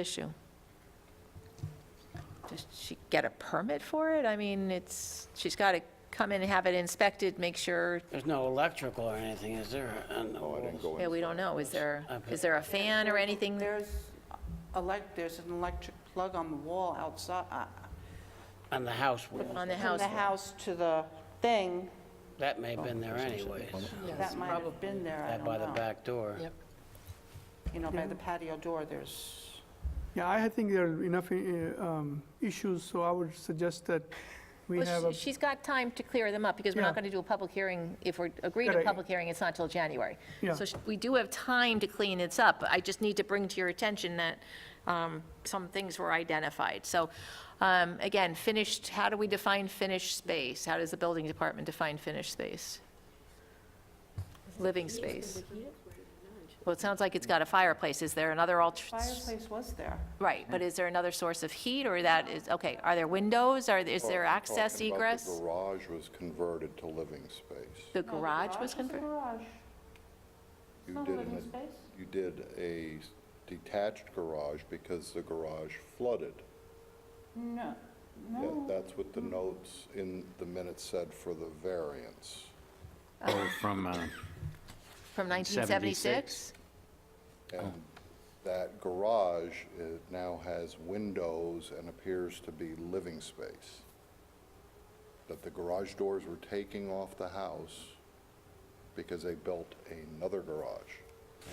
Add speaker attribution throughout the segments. Speaker 1: issue? Does she get a permit for it? I mean, it's, she's got to come in and have it inspected, make sure,
Speaker 2: There's no electrical or anything, is there?
Speaker 3: Oh, I didn't go
Speaker 1: yeah,
Speaker 3: in.
Speaker 1: we don't know, is there,
Speaker 2: I bet.
Speaker 1: is there a fan or anything?
Speaker 4: There's, elec- there's an electric plug on the wall outside, uh,
Speaker 2: On the house wall.
Speaker 1: On the
Speaker 4: from
Speaker 1: house
Speaker 4: the
Speaker 1: wall.
Speaker 4: house to the thing,
Speaker 2: That may have
Speaker 5: Oh,
Speaker 2: been there anyways,
Speaker 4: that might have been there, I
Speaker 2: that
Speaker 4: don't
Speaker 2: by the
Speaker 4: know.
Speaker 2: back door.
Speaker 4: You know, by the patio door, there's,
Speaker 6: Yeah, I think there are enough uh, um, issues, so I would suggest that we
Speaker 1: Well,
Speaker 6: have a,
Speaker 1: she- She's got time to clear them up, because we're
Speaker 6: Yeah.
Speaker 1: not going to do a public hearing, if we agree to
Speaker 6: Correct.
Speaker 1: public hearing, it's not till January.
Speaker 6: Yeah.
Speaker 1: So sh- we do have time to clean this up. I just need to bring to your attention that um, some things were identified. So, um, again, finished, how do we define finished space? How does the building department define finished space? Living space? Well, it sounds like it's got a fireplace. Is there another alter?
Speaker 4: fireplace was there.
Speaker 1: Right, but is there another source of heat, or that is, okay, are there windows? Are, is there access
Speaker 3: Talking about
Speaker 1: egress?
Speaker 3: The garage was converted to living space.
Speaker 1: The garage was
Speaker 4: converted.
Speaker 1: converted?
Speaker 3: You
Speaker 4: Not a
Speaker 3: did
Speaker 4: living
Speaker 3: an-
Speaker 4: space?
Speaker 3: You did a s- detached garage because the garage flooded.
Speaker 4: No,
Speaker 3: Yeah,
Speaker 4: no.
Speaker 3: That's what the notes in the minutes said for the variance.
Speaker 5: Oh, from, uh,
Speaker 1: From 1976?
Speaker 3: And that garage uh, now has windows and appears to be living space. That the garage doors were taking off the house because they built another garage.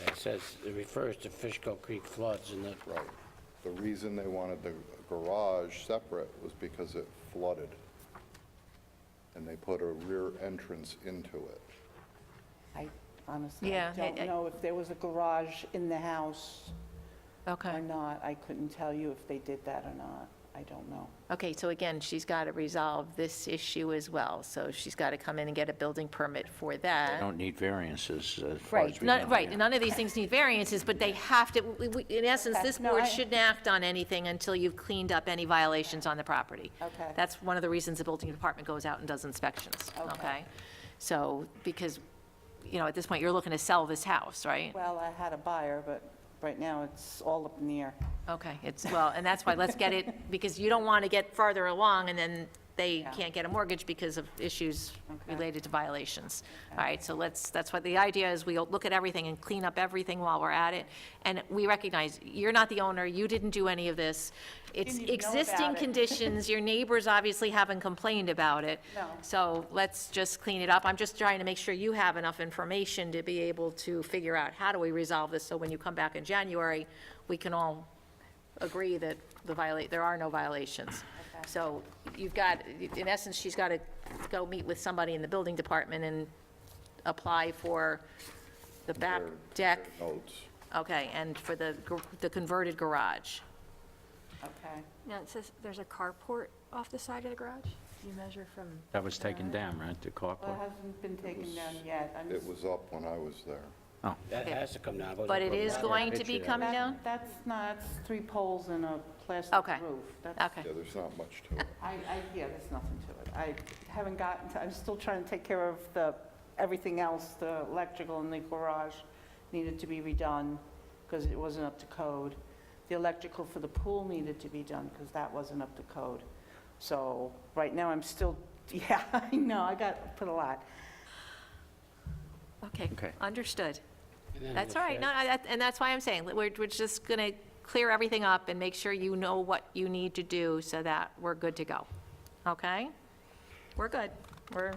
Speaker 2: It says, it refers to Fishkill Creek floods and the,
Speaker 3: Right. The reason they wanted the garage separate was because it flooded. And they put a rear entrance into it.
Speaker 4: I honestly,
Speaker 1: Yeah,
Speaker 4: I
Speaker 1: I-
Speaker 4: don't
Speaker 1: I-
Speaker 4: know if there was a garage in the house or
Speaker 1: Okay,
Speaker 4: not. I couldn't tell you if they did that or not. I don't know.
Speaker 1: okay, so again, she's got to resolve this issue as well, so she's got to come in and get a building permit for
Speaker 5: I
Speaker 1: that.
Speaker 5: don't need variances uh, as far as
Speaker 1: Right,
Speaker 5: we know.
Speaker 1: none, right,
Speaker 5: yeah.
Speaker 1: none of these things need variances, but they have to, we- we- in essence,
Speaker 4: Okay,
Speaker 1: this
Speaker 4: no, I-
Speaker 1: board shouldn't act on anything until you've cleaned up any violations on the property.
Speaker 4: Okay.
Speaker 1: That's one of the reasons the building department goes out and does inspections,
Speaker 4: Okay.
Speaker 1: okay? So, because, you know, at this point, you're looking to sell this house, right?
Speaker 4: Well, I had a buyer, but right now it's all up in the air.
Speaker 1: Okay, it's, well, and that's why, let's get it, because you don't want to get farther along, and then they
Speaker 4: Yeah.
Speaker 1: can't get a mortgage because of issues
Speaker 4: Okay.
Speaker 1: related to violations. All right, so let's, that's what, the idea is we look at everything and clean up everything while we're at it. And we recognize, you're not the owner, you didn't do any of this. It's
Speaker 4: Didn't even know about
Speaker 1: existing
Speaker 4: it.
Speaker 1: conditions, your neighbors obviously haven't complained about it.
Speaker 4: No.
Speaker 1: So let's just clean it up. I'm just trying to make sure you have enough information to be able to figure out how do we resolve this, so when you come back in January, we can all agree that the violate, there are no violations. So you've got, in essence, she's got to go meet with somebody in the building department and apply for the back
Speaker 3: Their-
Speaker 1: deck,
Speaker 3: their Notes.
Speaker 1: okay, and for the, gr- the converted garage.
Speaker 4: Okay.
Speaker 7: No, it says there's a carport off the side of the garage. You measure from.
Speaker 5: That was taken down, right, the
Speaker 4: Well, it
Speaker 5: carport?
Speaker 4: hasn't been taken down yet. I'm
Speaker 3: It was up when I was there.
Speaker 5: Oh.
Speaker 2: that has to come down. goes
Speaker 1: But
Speaker 2: up
Speaker 1: it
Speaker 2: a
Speaker 1: is
Speaker 2: ladder.
Speaker 1: going to be
Speaker 5: Picture that.
Speaker 1: coming
Speaker 4: That-
Speaker 1: down?
Speaker 4: That's not, that's three poles and a plastic
Speaker 1: Okay.
Speaker 4: roof. That's-
Speaker 1: Okay,
Speaker 3: Yeah, there's not much to it.
Speaker 4: I, I, yeah, there's nothing to it. I haven't gotten, to- I'm still trying to take care of the, everything else, the electrical in the garage needed to be redone because it wasn't up to code. The electrical for the pool needed to be done because that wasn't up to code. So right now, I'm still, yeah, I know, I got, put a lot.
Speaker 1: okay,
Speaker 5: Okay.
Speaker 1: understood.
Speaker 2: And then
Speaker 1: That's
Speaker 2: the
Speaker 1: all right, no,
Speaker 2: shed.
Speaker 1: I- that- and that's why I'm saying, that we're, we're just going to clear everything up and make sure you know what you need to do so that we're good to go, okay? We're good, we're,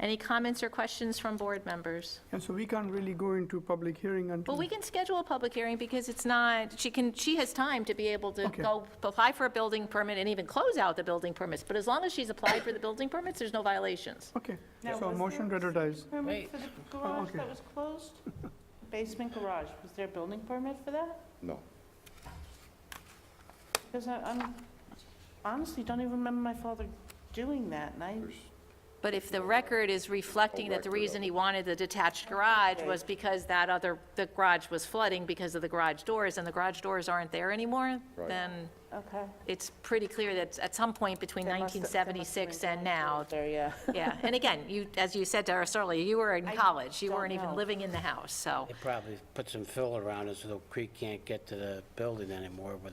Speaker 1: any comments or questions from board members?
Speaker 6: and so we can't really go into public hearing until...
Speaker 1: Well, we can schedule a public hearing because it's not, she can, she has time to be able to
Speaker 6: Okay.
Speaker 1: go apply for a building permit and even close out the building permits. But as long as she's applied for the building permits, there's no violations.
Speaker 6: Okay,
Speaker 4: Now,
Speaker 6: so
Speaker 4: was
Speaker 6: motion to
Speaker 4: there-
Speaker 6: advertise.
Speaker 4: Permit for the garage
Speaker 6: okay.
Speaker 4: that was closed? Basement garage, was there a building permit for that?
Speaker 3: No.
Speaker 4: Because I I'm- honestly don't even remember my father doing that, and I,
Speaker 1: But if the record is reflecting that the
Speaker 3: record of
Speaker 1: reason
Speaker 3: it.
Speaker 1: he wanted the detached garage was
Speaker 4: Okay.
Speaker 1: because that other, the garage was flooding because of the garage doors and the garage doors aren't there anymore,
Speaker 3: Right.
Speaker 1: then
Speaker 4: okay.
Speaker 1: it's pretty clear that at some point between
Speaker 4: There must have- there must have
Speaker 1: 1976
Speaker 4: been
Speaker 1: and now,
Speaker 4: doors There, yeah.
Speaker 1: yeah. And again, you, as you said to us earlier, you were in
Speaker 4: I
Speaker 1: college. You
Speaker 4: don't
Speaker 1: weren't even
Speaker 4: know.
Speaker 1: living in the house, so.
Speaker 2: They probably put some fill around it so the creek can't get to the building anymore with